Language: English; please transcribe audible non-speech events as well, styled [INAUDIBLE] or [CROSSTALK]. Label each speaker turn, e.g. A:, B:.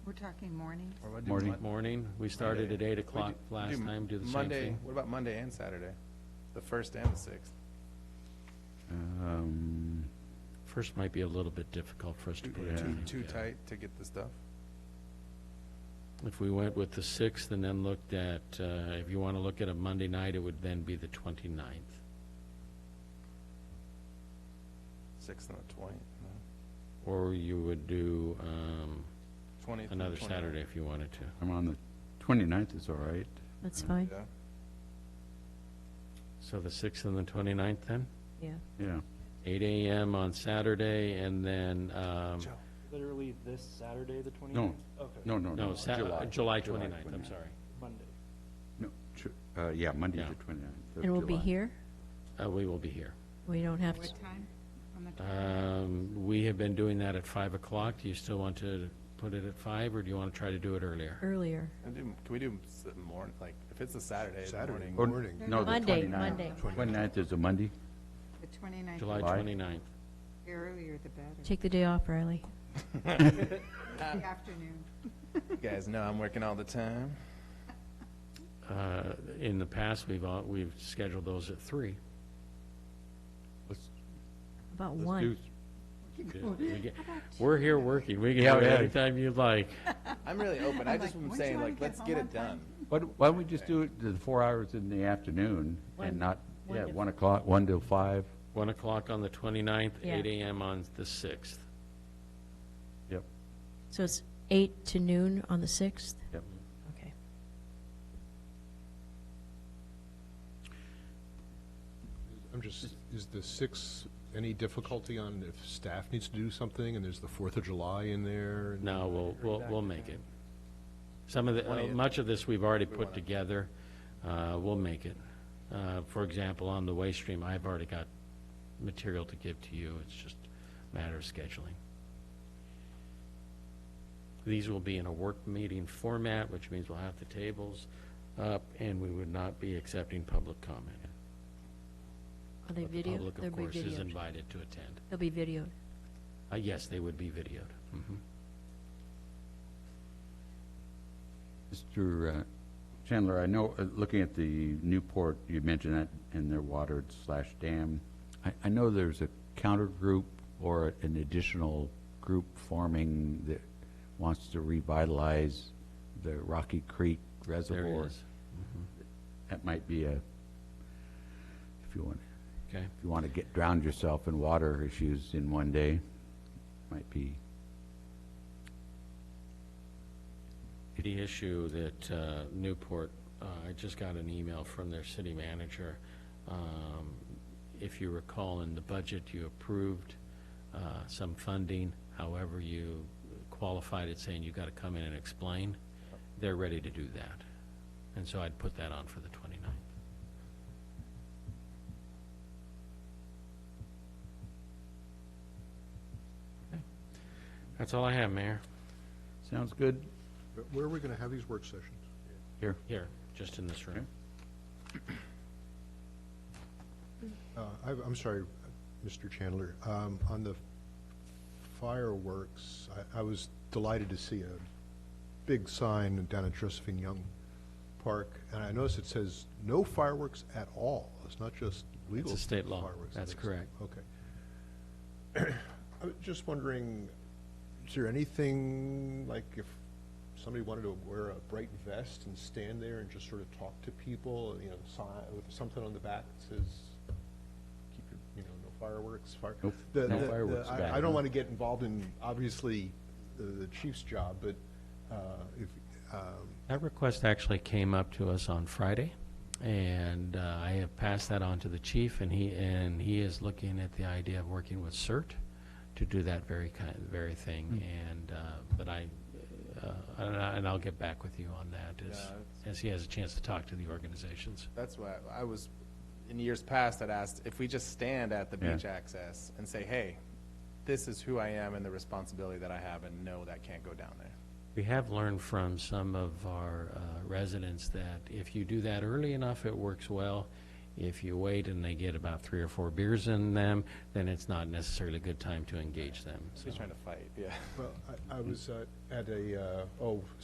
A: We're talking mornings?
B: Or we'll do
C: Morning.
B: Mon-
D: Morning, we started at
B: Monday.
D: eight
B: We
D: o'clock
B: do-
D: last time, do the same
B: Monday-
D: thing.
B: What about Monday and Saturday? The first and the sixth?
C: Um,
D: First might be a little bit difficult for us to
B: Too,
D: put
C: Yeah.
D: a
B: too,
D: time
B: too
D: together.
B: tight to get the stuff?
D: If we went with the sixth and then looked at, uh, if you want to look at a Monday night, it would then be the twenty-ninth.
B: Sixth and the twentieth, no?
D: Or you would do um,
B: Twentieth.
D: another Saturday if you wanted to.
C: I'm on the 29th is all right.
E: That's fine,
B: Yeah,
D: So the sixth and the twenty-ninth then?
E: yeah.
C: Yeah,
D: Eight AM on Saturday and then, um,
B: Joe.
F: Literally this Saturday, the 29th? Okay.
C: no, no, no.
D: no, Sa- uh, July twenty-ninth, I'm sorry.
F: Monday.
C: No, Ju- uh, yeah, Monday
D: Yeah.
C: the 29th of
E: And we'll be
C: July.
E: here?
D: Uh, We will be here.
E: We don't have
A: What
E: to,
A: time? On the twenty?
D: Um, We have been doing that at five o'clock. Do you still want to put it at five or do you want to try to do it earlier?
E: earlier.
B: Can we do- can we do s- morning, like, if it's a Saturday, the
G: Saturday
B: morning?
G: morning.
C: Oh,
D: Oh,
C: No, the
E: Monday,
C: 29th.
E: Monday.
C: 29th is a Monday?
A: The twenty-ninth,
D: July
C: July.
D: 29th.
A: the earlier the better.
E: Take the day off, Riley.
A: The afternoon.
B: You guys know I'm working all the time.
D: Uh, In the past, we've, all- we've scheduled those at three.
C: Let's-
E: About
C: let's
E: one.
C: do-
D: We get- We're here working. We can
C: Yeah,
D: do it
C: yeah.
D: anytime you'd like.
A: [LAUGHS]
B: I'm really open. I
A: I'm
B: just
A: like,
B: am
A: "When's
B: saying,
A: your
B: like,
A: get
B: let's
A: home
B: get
A: on
B: it done.
C: Why don't why don't we just do it the four hours in the afternoon
E: One-
C: and not,
E: one
C: yeah,
E: to-
C: 1 o'clock, 1 till 5?
D: One o'clock on the 29th,
E: Yeah.
D: eight AM on the sixth.
C: Yep,
E: So it's eight to noon on the 6th?
C: yep.
E: Okay.
G: I'm just, is the sixth, any difficulty on if staff needs to do something, and there's the Fourth of July in there? and-
D: No, we'll, we'll, we'll make it. Some of the, uh, much of this we've already put together. Uh, We'll make it. Uh, For example, on the waste stream, I've already got material to give to you. It's just a matter of scheduling. These will be in a work meeting format, which means we'll have the tables up, and we would not be accepting public comment.
E: Are they
D: But the
E: videoed?
D: public,
E: They'll
D: of
E: be
D: course, is
E: videoed.
D: invited to attend.
E: They'll be videoed.
D: Uh, Yes, they would be videoed. Mhm.
C: Mr. uh, Chandler, I know, uh, looking at the Newport, you mentioned that in their water slash dam. I, I know there's a counter group or an additional group forming that wants to revitalize the Rocky Creek
D: There
C: Reservoir.
D: it is.
C: That might be a, if you want,
D: Okay.
C: if you want to get, drown yourself in water issues in one day, might be,
D: The issue that uh, Newport, uh, I just got an email from their city manager. Um, If you recall, in the budget, you approved uh, some funding. However, you qualified it saying you got to come in and explain. They're ready to do that. And so I'd put that on for the 29th. Okay. That's all I have, Mayor.
C: sounds good
G: But Where are we going to have these work sessions?
C: here.
D: Here, just in this room.
C: Okay.
G: Uh, I- I'm sorry, Mr. Chandler, um, on the fireworks, I- I was delighted to see a big sign down at Josephine Young Park, and I noticed it says, "No fireworks at all." It's not just legal
D: It's a state law.
G: fireworks.
D: That's correct.
G: Okay. I was just wondering, is there anything, like if somebody wanted to wear a bright vest and stand there and just sort of talk to people, you know, si- with something on the back that says, keep your, you know, no fireworks, fire.
C: Nope,
G: The-
C: no
G: the- the-
C: fireworks
G: I-
C: ban,
G: I
C: huh?
G: don't want to get involved in, obviously, the- the chief's job, but uh, if, um,
D: That request actually came up to us on Friday, and uh, I have passed that on to the chief, and he, and he is looking at the idea of working with CERT to do that very kind, very thing, and, uh, but I, uh, and I- and I'll get back with you on that as,
B: Yeah,
D: as he has a chance to talk to the organizations.
B: That's why I was, in years past, I'd asked if we just stand at the
C: Yeah.
B: beach access and say, hey, this is who I am and the responsibility that I have, and no, that can't go down there.
D: We have learned from some of our uh, residents that if you do that early enough, it works well. If you wait and they get about three or four beers in them, then it's not necessarily a good time to engage them.
B: He's trying to fight, yeah.
G: Well, I, I was uh, at a, uh, oh,